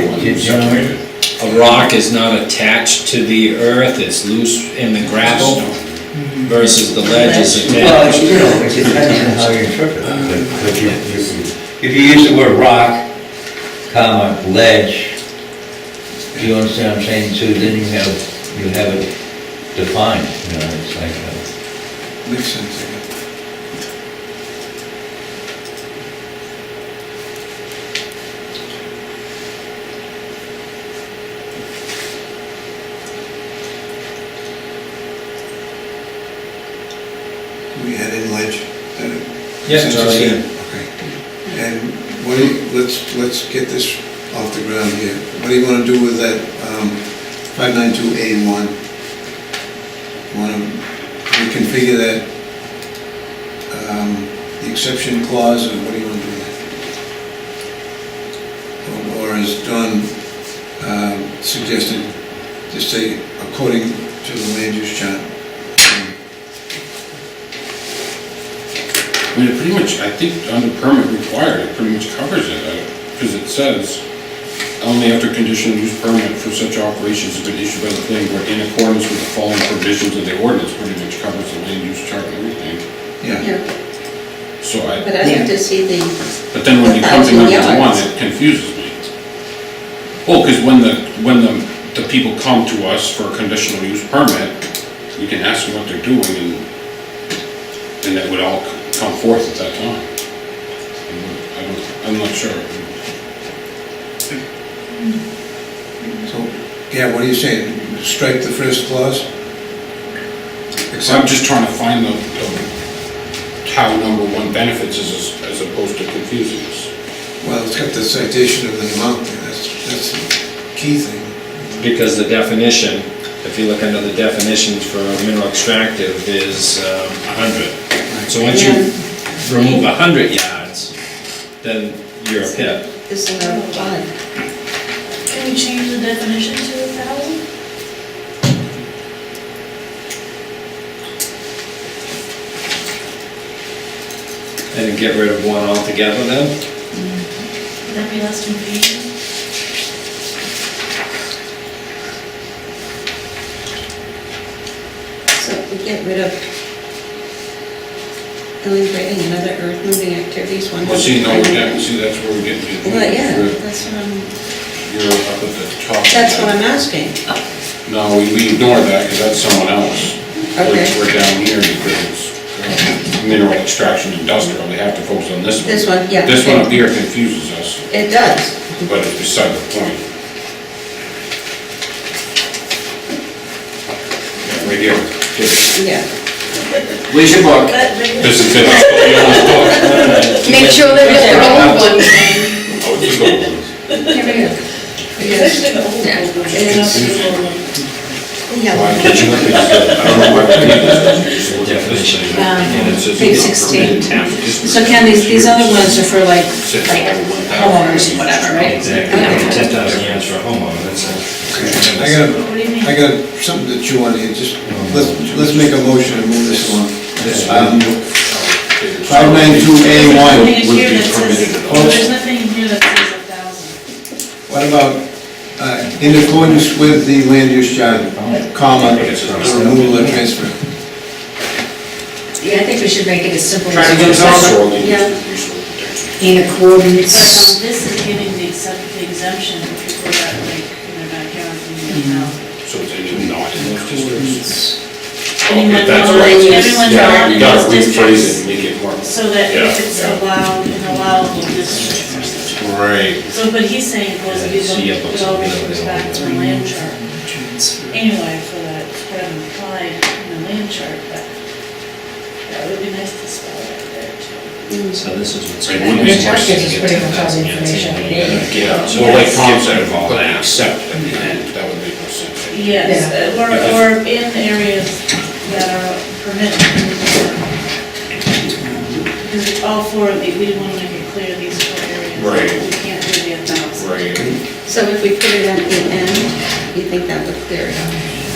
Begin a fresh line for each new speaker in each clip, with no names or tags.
You know what I mean?
A rock is not attached to the earth, it's loose in the gravel versus the ledge is
Well,
attached.
you know, it depends on how you interpret it.
But but you, you-
If you use the word rock, comma, ledge, do you understand what I'm saying, Sue? Then you have, you have it defined, you know, it's like, uh,
Makes sense, I guess. We had in ledge, that it.
Yeah, it's
since
already
you
in.
said- Okay. And what do you, let's, let's get this off the ground here. What do you wanna do with that, um, five nine two A one? Wanna reconfigure that, um, the exception clause, or what do you wanna do with that? Or or as Don, um, suggested, just say according to the land use chart.
I mean, it pretty much, I think under permit required, it pretty much covers it, because it says, um, only after conditional use permit for such operations has been issued by the planning board in accordance with the following provisions of the ordinance, pretty much covers the land use chart and everything.
Yeah,
Yeah,
So I,
but I have to see the
but then when you come to
A thousand
number one,
yards.
it confuses me. Well, because when the, when the, the people come to us for a conditional use permit, we can ask them what they're doing and, and that would all come forth at that time. I don't, I'm not sure.
so, yeah, what are you saying? Strike the first clause?
So I'm just trying to find the, the- how number one benefits as, as opposed to confusing us.
Well, it's got the citation of the amount there, that's, that's the key thing.
Because the definition, if you look under the definitions for mineral extractive, is uh, a hundred. So once you remove a hundred yards, then you're a pit.
this level one.
Can we change the definition to a thousand?
And get rid of one altogether then?
Would that be less confusing?
So we get rid of illustrating and other earth moving activities, one.
Well, see, no, we get, see, that's where we get to.
Well, yeah, that's what I'm,
You're up at the top. of
that's
that.
what I'm asking.
No, we, we ignore that, because that's someone else. We're-
Okay.
We're down here because it's uh, mineral extraction industrial, we have to focus on this one.
This one, yeah,
This one
okay.
up here confuses us,
It does.
but it's beside the point. Yeah, Right here, this
Yeah.
Where's your book?
That maybe-
this is it, you almost thought.
Make sure that it's the old one.
Oh, it's the gold ones.
Here we go.
Especially the old
Yeah.
one.
And it's-
Why
Yeah.
can't you look at it? I don't know why I can't look at this thing.
Um,
And it says
Page
not
16.
permitted to use.
So Ken, these, these other ones are for like,
Says
like
over 1,000.
homeowners and whatever, right?
Exactly, ten thousand yards for a homeowner, that's it.
I got, I got something to chew on here, just, let's, let's make a motion and move this along. Um, Five nine two A
Nothing
one,
in
Would
here
be
that says,
permitted.
well, there's nothing in here that says a thousand.
what about, uh, in accordance with the land use chart, comma, removal or transfer?
Yeah, I think we should make it as simple
Trying to get us also on the use
In
But
Uh-huh.
um,
accordance.
this is giving the except- the exemption for people that like, in their backyard, you know.
So it's even not in those districts.
Anyone
That's
not
right.
in- everyone
Yeah,
not
we
in
gotta
those
rephrase it,
districts.
and make it more.
So that if
Yeah,
it's
yeah.
allowed, in allowable districts or something.
Right.
So, but he's saying, was it,
Yeah, see,
it
it looks
always
like
goes
they
back
don't
to the land chart. Anyway, for that, what I'm implied in the land chart, but that would be nice to spell it out there too.
So this is what's.
It wouldn't be
Which
worse
gives
to
us
get
pretty
to
much all
that.
the information we need.
Yeah, so like Tom said, if all that except at the end, that would make more sense.
Yes,
Yeah.
uh, or, or in areas that are permitted. Because all four of these, we want to make it clear, these four areas.
Right.
We can't do the amounts.
Right.
So if we put it at the end, you think that would clear it up?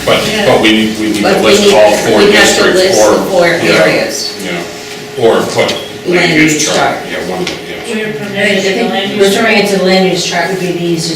But, but we need, we need to
But we
list
need,
all four
we have to
districts
list
or.
the four
yeah,
areas.
Yeah, or put
Land
land
use
use chart,
chart.
yeah, one of them, yeah.
We're permitted in the land use. chart.
Referring it to the land use chart would be the easiest